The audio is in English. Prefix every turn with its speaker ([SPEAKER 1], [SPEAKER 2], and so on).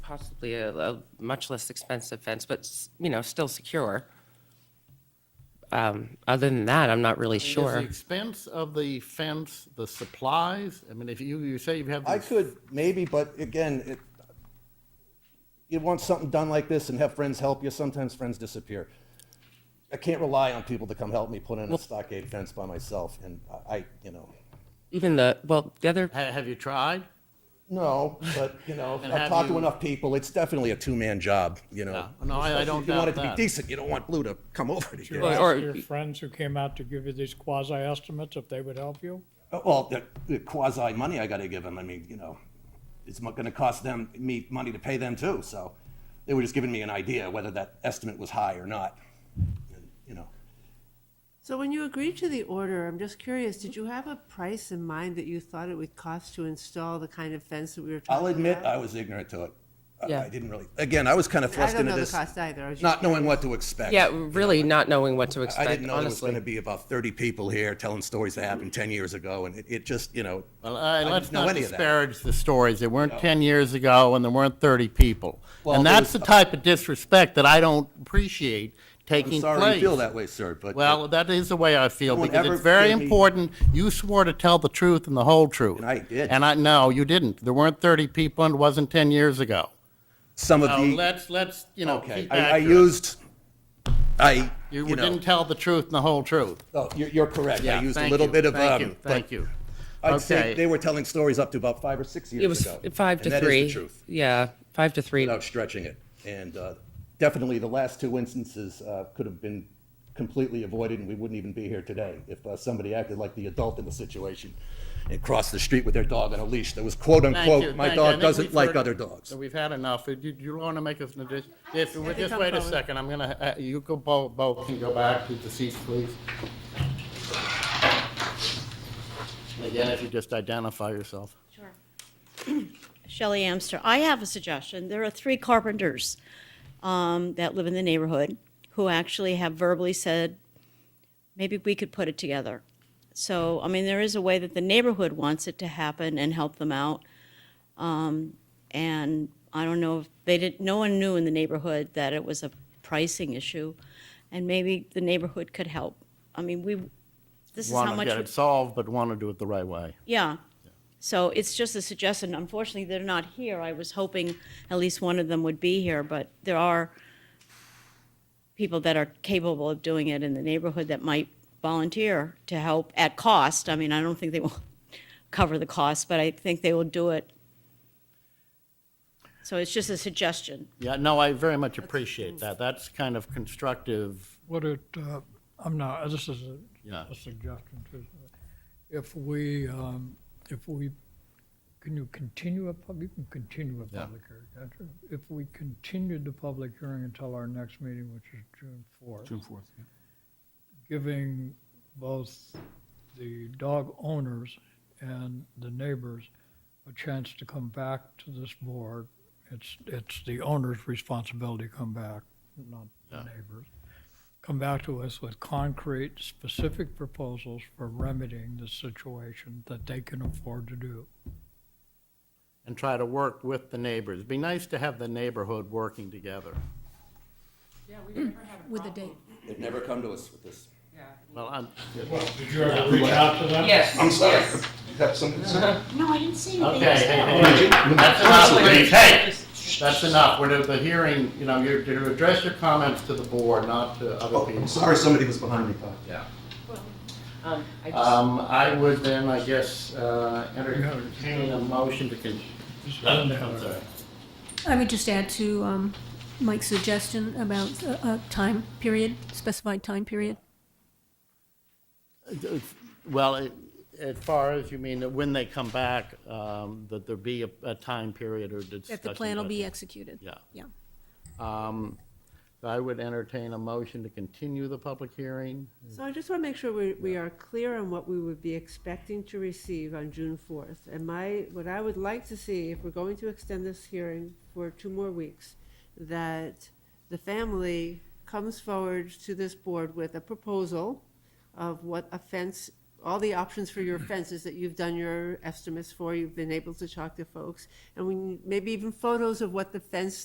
[SPEAKER 1] possibly a, a much less expensive fence, but, s- you know, still secure. Um, Other than that, I'm not really
[SPEAKER 2] Is the
[SPEAKER 1] sure.
[SPEAKER 2] expense of the fence, the supplies? I mean, if you, you say you have.
[SPEAKER 3] I
[SPEAKER 2] these-
[SPEAKER 3] could, maybe, but again, it, you want something done like this and have friends help you, sometimes friends disappear. I can't rely on people to come help me put in a stockade fence by myself, and I, I, you know,
[SPEAKER 1] Even the, well, the other,
[SPEAKER 2] Ha- Have you tried?
[SPEAKER 3] no, but, you know,
[SPEAKER 2] And
[SPEAKER 3] I've
[SPEAKER 2] have
[SPEAKER 3] talked to
[SPEAKER 2] you-
[SPEAKER 3] enough people, it's definitely a two-man job, you know.
[SPEAKER 2] Yeah. No, I- I
[SPEAKER 3] Especially
[SPEAKER 2] don't
[SPEAKER 3] If you want it
[SPEAKER 2] doubt
[SPEAKER 3] to be
[SPEAKER 2] that.
[SPEAKER 3] decent, you don't want Blue to come over to you.
[SPEAKER 1] Well,
[SPEAKER 4] Ask
[SPEAKER 1] or-
[SPEAKER 4] your friends who came out to give you these quasi estimates if they would help you?
[SPEAKER 3] Oh, Well, the- the quasi money I got to give them. I mean, you know, it's going to cost them me money to pay them too. So they were just giving me an idea whether that estimate was high or not. And, you know,
[SPEAKER 5] So when you agreed to the order, I'm just curious, did you have a price in mind that you thought it would cost to install the kind of fence that we were talking
[SPEAKER 3] I'll
[SPEAKER 5] about?
[SPEAKER 3] admit I was ignorant to it. I-
[SPEAKER 1] Yeah.
[SPEAKER 3] I didn't really. Again, I was kind of thrust
[SPEAKER 5] don't
[SPEAKER 3] into
[SPEAKER 5] know the
[SPEAKER 3] this,
[SPEAKER 5] cost either. I was just
[SPEAKER 3] not knowing what to expect.
[SPEAKER 1] yeah, really not knowing what to
[SPEAKER 3] I didn't
[SPEAKER 1] expect,
[SPEAKER 3] know there was going to
[SPEAKER 1] honestly.
[SPEAKER 3] be about 30 people here telling stories that happened 10 years ago, and it, it just, you know,
[SPEAKER 2] Well, I,
[SPEAKER 3] didn't
[SPEAKER 2] let's
[SPEAKER 3] know
[SPEAKER 2] not
[SPEAKER 3] any of that.
[SPEAKER 2] disparage the stories. They weren't ten years ago, and there weren't thirty people.
[SPEAKER 3] Well,
[SPEAKER 2] And
[SPEAKER 3] there
[SPEAKER 2] that's the
[SPEAKER 3] was-
[SPEAKER 2] type of disrespect that I don't appreciate
[SPEAKER 3] I'm
[SPEAKER 2] taking place.
[SPEAKER 3] sorry you feel that way, sir. But
[SPEAKER 2] Well, that is the way I feel,
[SPEAKER 3] No one
[SPEAKER 2] because
[SPEAKER 3] ever
[SPEAKER 2] it's very
[SPEAKER 3] gave me-
[SPEAKER 2] important. You swore to tell the truth and the whole truth.
[SPEAKER 3] And I did.
[SPEAKER 2] And I, no, you didn't. There weren't thirty people, and it wasn't ten years ago.
[SPEAKER 3] some of
[SPEAKER 2] So
[SPEAKER 3] the
[SPEAKER 2] let's, let's, you know,
[SPEAKER 3] okay,
[SPEAKER 2] keep
[SPEAKER 3] I, I
[SPEAKER 2] accurate.
[SPEAKER 3] used, I
[SPEAKER 2] You
[SPEAKER 3] know,
[SPEAKER 2] didn't tell the truth and the whole truth.
[SPEAKER 3] Oh, you're, you're correct. I
[SPEAKER 2] Yeah,
[SPEAKER 3] used a
[SPEAKER 2] thank
[SPEAKER 3] little
[SPEAKER 2] you,
[SPEAKER 3] bit of,
[SPEAKER 2] Thank
[SPEAKER 3] um,
[SPEAKER 2] you,
[SPEAKER 3] but
[SPEAKER 2] thank you.
[SPEAKER 3] I'd say
[SPEAKER 2] Okay.
[SPEAKER 3] they were telling stories up to about five or six years
[SPEAKER 1] It was
[SPEAKER 3] ago.
[SPEAKER 1] five
[SPEAKER 3] and
[SPEAKER 1] to three.
[SPEAKER 3] That is the truth,
[SPEAKER 1] Yeah, five to three.
[SPEAKER 3] without stretching it. And, uh, definitely the last two instances, uh, could have been completely avoided and we wouldn't even be here today if, uh, somebody acted like the adult in the situation and crossed the street with their dog on a leash that was quote
[SPEAKER 2] Thank you,
[SPEAKER 3] unquote, my
[SPEAKER 2] thank you. I
[SPEAKER 3] dog
[SPEAKER 2] think
[SPEAKER 3] doesn't
[SPEAKER 2] we've
[SPEAKER 3] like
[SPEAKER 2] heard-
[SPEAKER 3] other dogs.
[SPEAKER 2] So we've had enough. Do you, want to make us an addition? If,
[SPEAKER 5] I
[SPEAKER 2] just
[SPEAKER 5] think
[SPEAKER 2] wait a
[SPEAKER 5] I'm
[SPEAKER 2] second, I'm gonna, uh, you go, both, both can go back to the seats, please. Again, if you just identify yourself.
[SPEAKER 6] Sure. Shelley Amster, I have a suggestion. There are three carpenters um, that live in the neighborhood who actually have verbally said, maybe we could put it together. So, I mean, there is a way that the neighborhood wants it to happen and help them out. Um, And I don't know if, they didn't, no one knew in the neighborhood that it was a pricing issue, and maybe the neighborhood could help. I mean, we, this is how
[SPEAKER 2] Want to
[SPEAKER 6] much.
[SPEAKER 2] get
[SPEAKER 6] we-
[SPEAKER 2] it solved, but want to do it the right way.
[SPEAKER 6] yeah. So it's just a suggestion. Unfortunately, they're not here. I was hoping at least one of them would be here, but there are people that are capable of doing it in the neighborhood that might volunteer to help at cost. I mean, I don't think they will cover the cost, but I think they will do it. So it's just a suggestion.
[SPEAKER 2] Yeah, no, I very much appreciate that. That's kind of constructive.
[SPEAKER 4] Would it, uh, I'm not, this is a
[SPEAKER 2] Yeah.
[SPEAKER 4] a suggestion too. If we, um, if we, can you continue a public, you can continue a
[SPEAKER 2] Yeah.
[SPEAKER 4] public hearing, can't you? If we continued the public hearing until our next meeting, which is June fourth. June fourth, yeah. Giving both the dog owners and the neighbors a chance to come back to this board. It's, it's the owner's responsibility to come back, not the neighbor's. Come back to us with concrete, specific proposals for remedying the situation that they can afford to do.
[SPEAKER 2] and try to work with the neighbors. It'd be nice to have the neighborhood working together.
[SPEAKER 7] With a date.
[SPEAKER 3] They've never come to us with this.
[SPEAKER 2] Well, I'm,
[SPEAKER 4] Did you ever reach out to them?
[SPEAKER 1] Yes.
[SPEAKER 3] I'm sorry. You have some concern?
[SPEAKER 6] No, I didn't see
[SPEAKER 2] okay, hey, hey, hey, that's enough, please, hey, that's enough. We're at the hearing, you know, you're to address your comments to the board, not to
[SPEAKER 3] Oh,
[SPEAKER 2] other
[SPEAKER 3] I'm
[SPEAKER 2] people.
[SPEAKER 3] sorry somebody was behind me, Todd.
[SPEAKER 2] Yeah.
[SPEAKER 1] Um, I just-
[SPEAKER 2] Um, I would then, I guess, uh, entertain a motion to con. I'm sorry.
[SPEAKER 7] I would just add to um, Mike's suggestion about a, a time period, specified time period.
[SPEAKER 2] Well, it- as far as you mean, that when they come back, um, that there be a, a time period or discussion.
[SPEAKER 7] That the plan will be executed.
[SPEAKER 2] Yeah.
[SPEAKER 7] Yeah.
[SPEAKER 2] Um, I would entertain a motion to continue the public hearing.
[SPEAKER 5] So I just want to make sure we, we are clear on what we would be expecting to receive on June fourth. And my, what I would like to see, if we're going to extend this hearing for two more weeks, that the family comes forward to this board with a proposal of what a fence all the options for your fences that you've done your estimates for, you've been able to talk to folks, and we, maybe even photos of what the fence